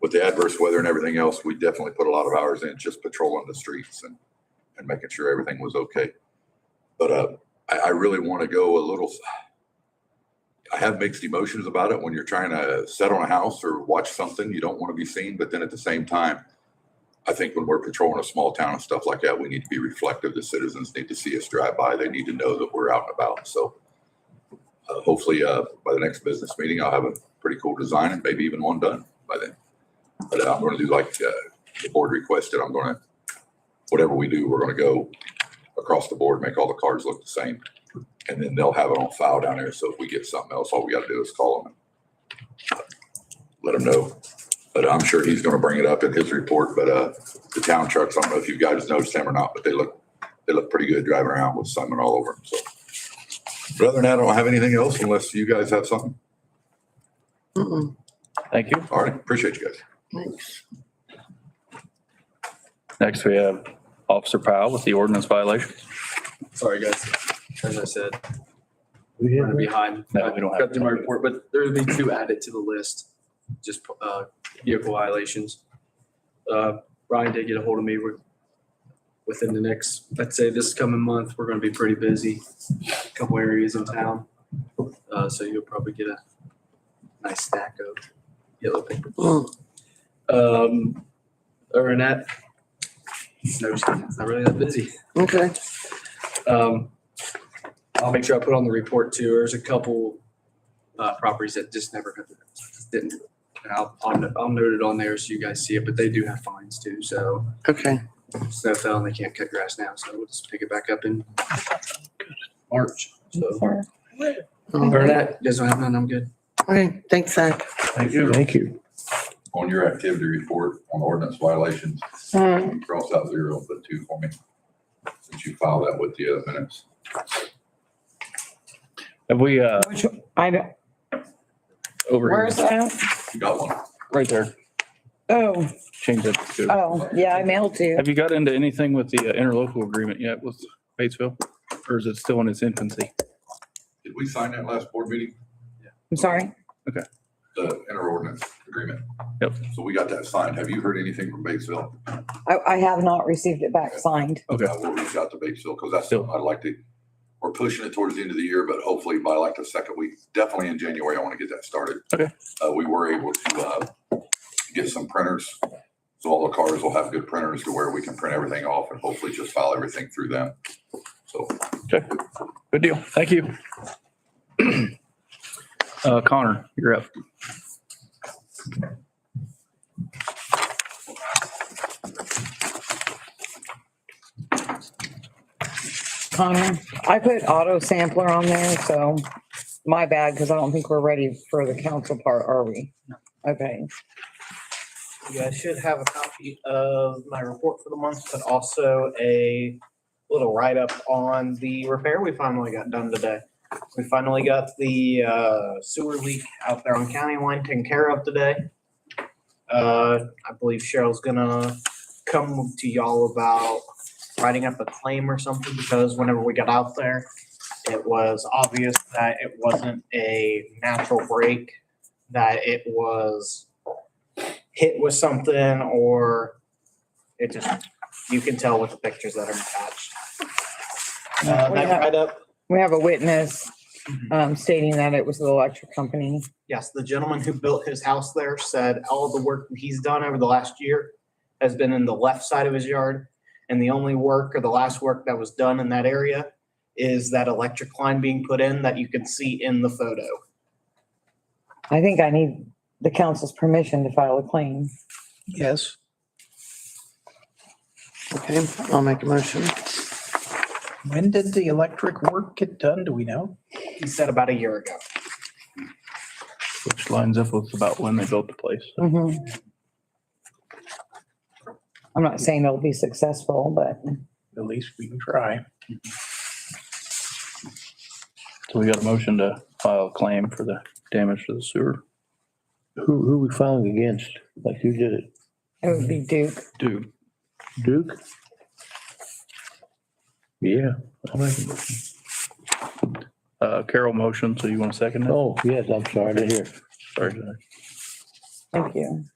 with the adverse weather and everything else, we definitely put a lot of hours in just patrolling the streets and, and making sure everything was okay. But, uh, I, I really want to go a little, I have mixed emotions about it when you're trying to set on a house or watch something, you don't want to be seen, but then at the same time, I think when we're patrolling a small town and stuff like that, we need to be reflective. The citizens need to see us drive by. They need to know that we're out and about. So uh, hopefully, uh, by the next business meeting, I'll have a pretty cool design and maybe even one done by then. But I'm going to do like, uh, the board requested. I'm going to, whatever we do, we're going to go across the board, make all the cards look the same. And then they'll have it on file down there. So if we get something else, all we got to do is call them. and Let them know. But I'm sure he's going to bring it up in his report, but, uh, the town trucks, I don't know if you guys noticed them or not, but they look, they look pretty good driving around with Simon all over them, so. But other than that, I don't have anything else unless you guys have something. Mm-mm. Thank you. All right, appreciate you guys. Next, we have Officer Powell with the ordinance violation. Sorry, guys. As I said, We we're have behind. No, we don't have- Got through my report, but there'll be two added to the list, just uh, vehicle violations. Uh, Ryan did get a hold of me. We're within the next, I'd say this coming month, we're going to be pretty busy. a Couple areas in town. Uh, So you'll probably get a nice stack of yellow paper. Mm. Um, Other than that, no, it's not really that busy. Okay, Um, I'll make sure I put on the report too. There's a couple uh, properties that just never got- just didn't. And I'll, I'll I'll note it on there so you guys see it, but they do have fines too. So okay. snow fell and they can't cut grass now. So we'll just pick it back up in March. So All other than right. that, you guys don't have none. I'm good. Okay, thanks, Zach. Thank you. Thank you. On your activity report on ordinance violations, you cross out zero, but two for me. Since you file that with the other minutes. Have we, uh, Which, I don't, over where's here, that? You got one? right there, Oh, change it to. oh, yeah, I mailed you. Have you got into anything with the uh, interlocal agreement yet with Batesville? Or is it still in its infancy? Did we sign that last board meeting, I'm sorry. the interordinance agreement? Yep. So we got that signed. Have you heard anything from Batesville? I, I have not received it back signed. Okay. I will reach out to Batesville because that's something I'd like to, we're pushing it towards the end of the year, but hopefully by like the second week, definitely in January, I want to get that started. Okay. Uh, we were able to, uh, get some printers. So all the cars will have good printers to where we can print everything off and hopefully just file everything through them. So Good deal. Thank you. Uh, Connor, you're up. Connor, I put auto sampler on there, so my bad, because I don't think we're ready for the council part, are we? Okay, You guys should have a copy of my report for the month, but also a little write-up on the repair we finally got done today. We finally got the uh, sewer leak out there on County Line taken care of today. Uh, I believe Cheryl's gonna come to y'all about writing up a claim or something, because whenever we got out there, it was obvious that it wasn't a natural break, that it was hit with something or it just, you can tell with the pictures that are attached. Uh, We that have- write-up, we have a witness um, stating that it was the electric company. yes, the gentleman who built his house there said all the work that he's done over the last year has been in the left side of his yard. And the only work or the last work that was done in that area is that electric line being put in that you can see in the photo. I think I need the council's permission to file a claim. Yes. Okay, I'll make a motion. When did the electric work get done? Do we know? He said about a year ago. Which lines up with about when they built the place. Mhm. I'm not saying it'll be successful, but At least we can try. So we got a motion to file a claim for the damage to the sewer. Who, who we filing against? Like who did it? it would be Duke. Dude, Duke? Yeah. I'll make it. uh, Carol motion, so you want to second that? Oh, yes, I'm sorry to hear. Sorry. Thank you.